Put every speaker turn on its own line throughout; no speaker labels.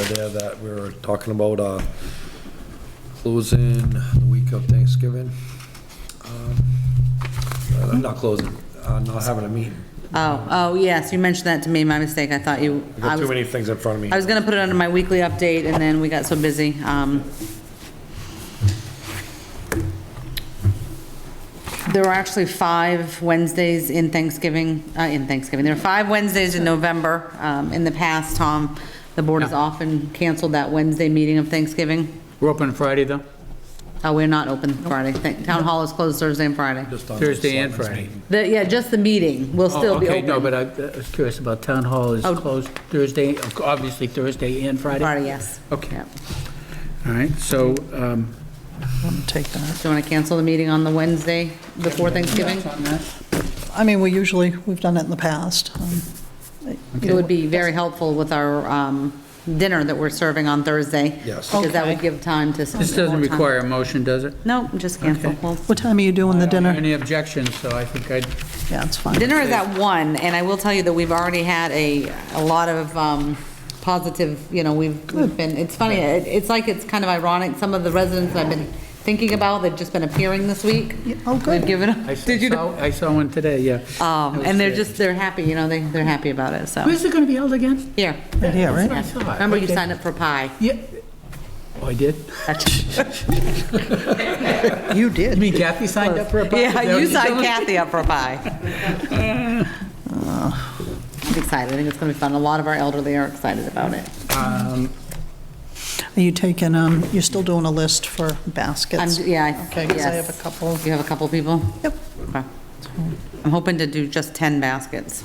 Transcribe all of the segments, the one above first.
there that we were talking about, uh, closing the week of Thanksgiving. Um, uh, Not closing, uh, not having a meeting.
Oh, oh, yes, you mentioned that to me, my mistake, I thought you,
I
I
got too
was,
many things in front of me.
I was gonna put it under my weekly update, and then we got so busy, um. There were actually five Wednesdays in Thanksgiving, uh, in Thanksgiving, there were five Wednesdays in November, um, in the past, Tom, the board has often canceled that Wednesday meeting of Thanksgiving.
We're open Friday, though,
Oh, we're not open Friday, Thank- town hall is closed Thursday and Friday.
Just on the
Thursday and
selectmen's
Friday.
meeting.
The, yeah, just the meeting will
Oh,
still be
Okay, no,
open.
but I I was curious about Town Hall is
Oh.
closed Thursday, obviously Thursday and Friday?
Friday, yes.
Okay,
Yep.
all right, so, um,
Wouldn't take that.
Do you want to cancel the meeting on the Wednesday before Thanksgiving?
on that?
I mean, we usually, we've done it in the past. um,
It would be very helpful with our um, dinner that we're serving on Thursday.
Yes.
Because that would
Okay.
give time to.
This doesn't require a motion, does it?
No, just cancel.
Okay.
Well,
What time are you doing the dinner?
Any objections, so I think I'd,
Yeah, it's fine.
Dinner is at one, and I will tell you that we've already had a, a lot of um, positive, you know, we've we've been, it's funny, it- it's like, it's kind of ironic, some of the residents I've been thinking about, they've just been appearing this week.
Yeah, oh,
They've
good.
given
I
up. Did you? know?
saw, I saw one today, yeah.
Um, And they're just, they're happy, you know, they, they're happy about it, so.
Where's it going to be held again?
Here,
Right here, right?
I saw it.
remember you
Okay.
signed up for pie.
Yeah. Oh, I did?
You
You
did.
mean Kathy signed up for a party?
Yeah, you signed
Kathy.
Kathy up for a pie. I'm excited, I think it's gonna be fun, a lot of our elderly are excited about it.
Um,
Are you taking, um, you're still doing a list for
I'm,
baskets?
yeah, I-
Okay, because I have a
yes.
couple.
You have a couple people?
Yep,
Okay. I'm hoping to do just 10 baskets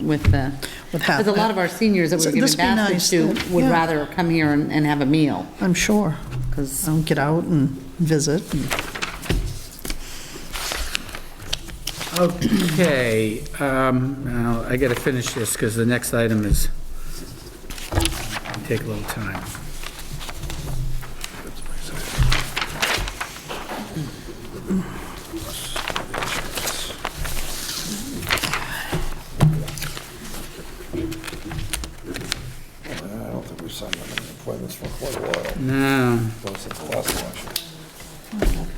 with the,
With half-
because a lot of our seniors that
So
we're giving
this be
baskets
nice,
to
uh,
would
yeah.
rather come here and and have a meal,
I'm sure.
because,
I'll get out and visit.
Okay, um, now, I gotta finish this, because the next item is, take a little time.
I don't think we've signed up any appointments for quite a while,
Now,
though, since the last election.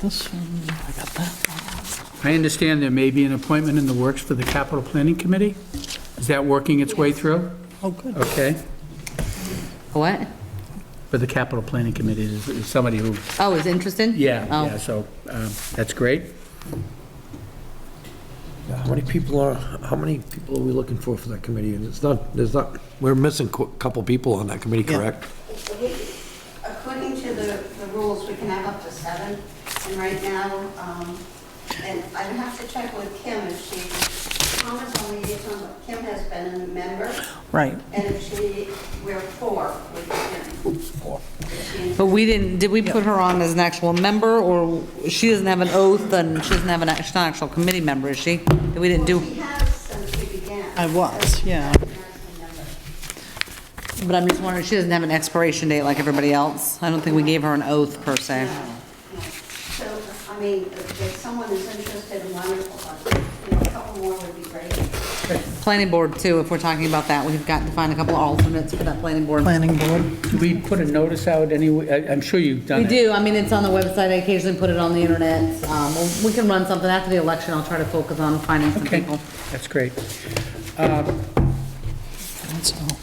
This um, one, I got that.
I understand there may be an appointment in the works for the capital planning committee? Is that working its way through?
Oh, good.
Okay,
what?
for the capital planning committee, is is somebody who,
Oh, is interested?
yeah,
Oh.
yeah, so, um, that's great.
Yeah, How many people are, how many people are we looking for for that committee? And it's not, there's not, we're missing a couple people on that committee,
Yeah.
correct?
We- According to the, the rules, we can have up to seven, and right now, um, and I would have to check with Kim if she, Tom is on liaison, but Kim has been a member,
Right.
and if she, we're four with Kim.
But we didn't, did we put her on as an actual member, or she doesn't have an oath, and she doesn't have an, act- she's not an actual committee member, is she? That We didn't do,
Well, she has since we began.
I was, yeah.
She's not a member.
but I'm just wondering, she doesn't have an expiration date like everybody else? I don't think we gave her an oath, per se.
So, I mean, if if someone is interested, wonderful, but, you know, a couple more would be great.
Planning board, too, if we're talking about that, we've got to find a couple of alternates for that planning board.
Planning board.
Do we put a notice out anyway? I- I'm sure you've done
We
it.
do, I mean, it's on the website, I occasionally put it on the internet. Um, We can run something after the election, I'll try to focus on finding some
Okay,
people.
that's great.
That's all.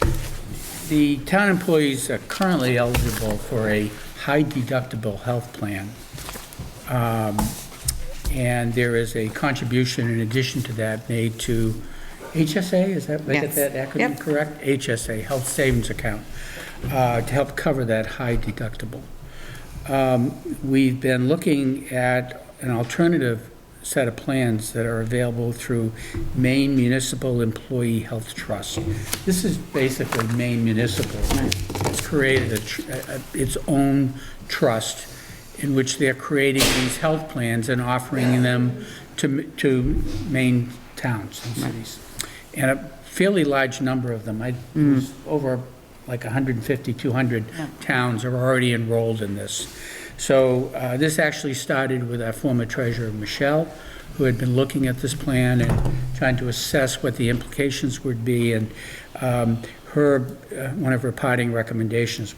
The town employees are currently eligible for a high deductible health plan. Um, And there is a contribution in addition to that made to HSA, is that, did I get
Yes.
that acronym
Yep.
correct? HSA, Health Savings Account, uh, to help cover that high deductible. Um, We've been looking at an alternative set of plans that are available through Maine Municipal Employee Health Trust. This is basically Maine Municipal. It's created a tr- a- a- its own trust in which they're creating these health plans and offering them to m- to Maine towns and cities. And a fairly large number of them, I, there's over like 150, 200 towns are already enrolled in this. So uh, this actually started with our former treasurer, Michelle, who had been looking at this plan and trying to assess what the implications would be. And um, her, uh, one of her parting recommendations